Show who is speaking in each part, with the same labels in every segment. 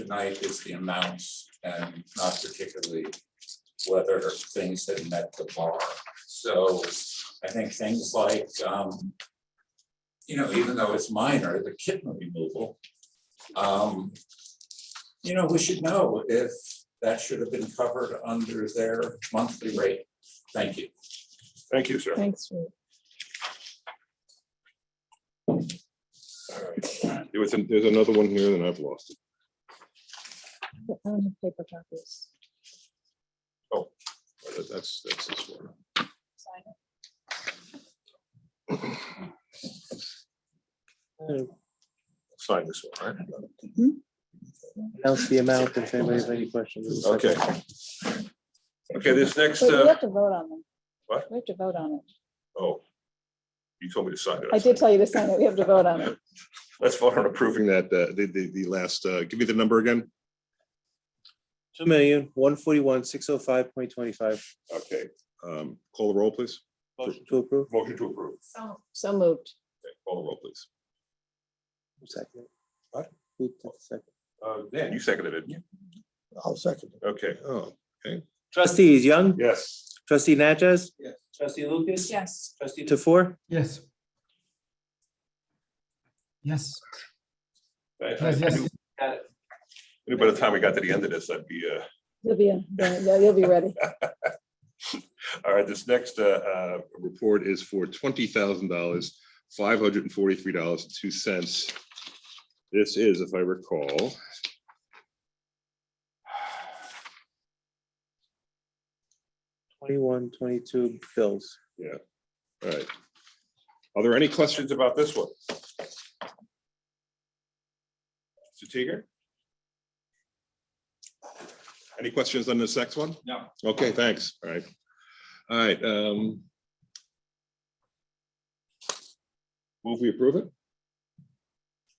Speaker 1: tonight is the amounts and not particularly whether things had met the bar. So I think things like, um, you know, even though it's minor, the kitten removal, um, you know, we should know if that should have been covered under their monthly rate. Thank you.
Speaker 2: Thank you, sir.
Speaker 3: Thanks, Rick.
Speaker 2: There was, an- there's another one here and I've lost it.
Speaker 3: I don't have paper copies.
Speaker 2: But that- That's, that's this one.
Speaker 3: Sign it.
Speaker 2: Sign this one, right?
Speaker 4: announce the amount if anybody has any questions.
Speaker 2: Okay. Okay, this next,
Speaker 3: Wait, we
Speaker 2: uh,
Speaker 3: have to vote on them.
Speaker 2: What?
Speaker 3: We have to vote on it.
Speaker 2: oh. You told me to sign it.
Speaker 3: I did tell you to sign it. We have to vote on it.
Speaker 2: Let's vote on approving that, uh, the, the, the last, uh, give me the number again.
Speaker 4: Two million, one forty-one, six oh five point twenty-five.
Speaker 2: Okay. Um, call the roll, please.
Speaker 4: To approve?
Speaker 2: Motion to approve.
Speaker 3: So. So moved.
Speaker 2: Okay, Call the roll, please.
Speaker 4: Second.
Speaker 2: What?
Speaker 4: Who took the second?
Speaker 2: Uh, Dan, you seconded it. didn't
Speaker 5: I'll second.
Speaker 2: you? Okay, oh,
Speaker 4: Trustees Young,
Speaker 2: yes.
Speaker 4: trustee Natchez,
Speaker 6: Trustee Lucas?
Speaker 3: Yes.
Speaker 6: Trustee
Speaker 4: to four,
Speaker 7: Yes. Yes,
Speaker 2: Thank you.
Speaker 7: yes,
Speaker 2: I
Speaker 7: yes.
Speaker 2: knew- I knew By the time we got to the end of this, I'd be, uh,
Speaker 3: You'll be, in- yeah, yeah, you'll be ready.
Speaker 2: All right, this next uh, uh, report is for twenty thousand dollars, five hundred and forty-three dollars and two cents. This is, if I recall.
Speaker 4: twenty-one, twenty-two bills.
Speaker 2: All right. Are there any questions about this one? Mr. Teeger? Any questions on this next one?
Speaker 1: No.
Speaker 2: Okay, thanks. All right. All right. um, Move we approve it?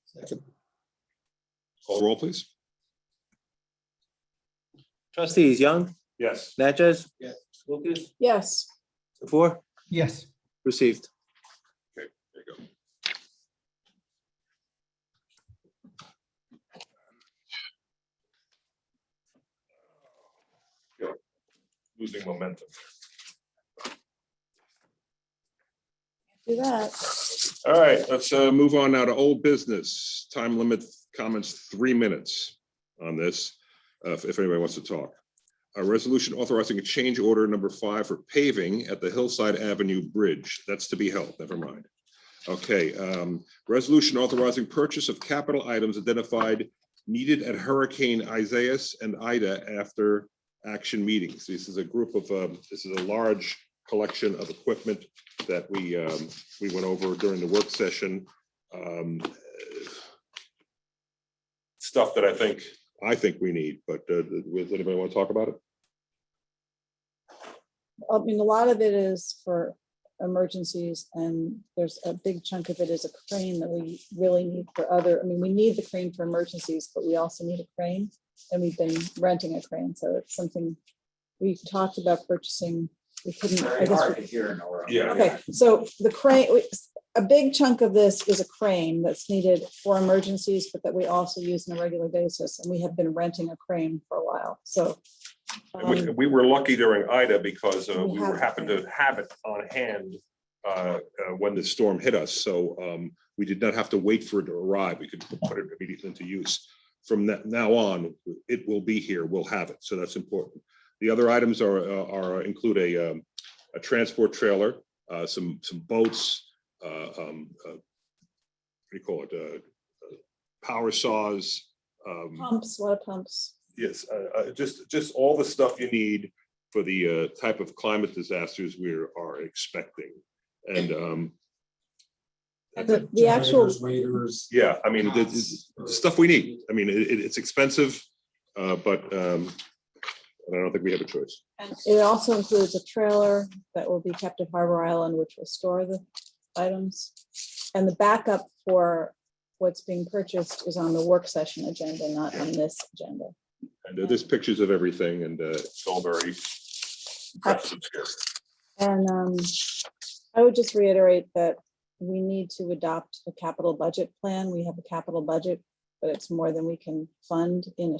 Speaker 5: Second.
Speaker 2: Call roll, please.
Speaker 4: Trustees Young,
Speaker 2: Yes.
Speaker 4: Natchez,
Speaker 6: Lucas?
Speaker 3: Yes.
Speaker 4: to four,
Speaker 7: yes.
Speaker 4: received.
Speaker 2: There you go. Yeah, Losing momentum.
Speaker 3: Do that.
Speaker 2: All right, let's uh, move on now to old business. Time limit comments, three minutes on this, uh, if if anybody wants to talk. A resolution authorizing a change order number five for paving at the Hillside Avenue Bridge. That's to be held, never mind. Okay, um, resolution authorizing purchase of capital items identified needed at Hurricane Isaias and Ida after action meetings. This is a group of, um, this is a large collection of equipment that we um, we went over during the work session. um, Stuff that I think. I think we need, but uh, does anybody want to talk about it?
Speaker 3: I mean, a lot of it is for emergencies and there's a big chunk of it is a crane that we really need for other, I mean, we need the crane for emergencies, but we also need a crane. And we've been renting a crane, so it's something we talked about purchasing. We couldn't, I
Speaker 1: Very
Speaker 3: guess,
Speaker 1: hard to
Speaker 3: we-
Speaker 1: hear, Nora.
Speaker 2: Yeah.
Speaker 3: okay, so the crane, we- a big chunk of this is a crane that's needed for emergencies, but that we also use on a regular basis. And we have been renting a crane for a while, so.
Speaker 2: We-
Speaker 3: um,
Speaker 2: We were lucky during Ida because uh, we
Speaker 3: We
Speaker 2: were
Speaker 3: have-
Speaker 2: happened to have it on hand uh, uh, when the storm hit us, so um, we did not have to wait for it to arrive. We could put it immediately into use. From that now on, it will be here, we'll have it, so that's important. The other items are, uh, are, include a, um, a transport trailer, uh, some, some boats, uh, um, uh, what do you call it, uh, uh, power saws, um,
Speaker 3: Pumps, a lot of pumps.
Speaker 2: Yes, uh, uh, just, just all the stuff you need for the uh, type of climate disasters we are expecting. And um,
Speaker 3: And the- the actual
Speaker 1: Generators, Radars.
Speaker 2: yeah, I mean, the- the the stuff we need. I mean, it, it- it's expensive, uh, but um, and I don't think we have a choice.
Speaker 3: And It also includes a trailer that will be kept at Harbor Island, which will store the items. And the backup for what's being purchased is on the work session agenda, not on this agenda.
Speaker 2: And there's pictures of everything and uh, it's all very. impressive here.
Speaker 3: And um, I would just reiterate that we need to adopt a capital budget plan. We have a capital budget, but but it's more than we can fund in a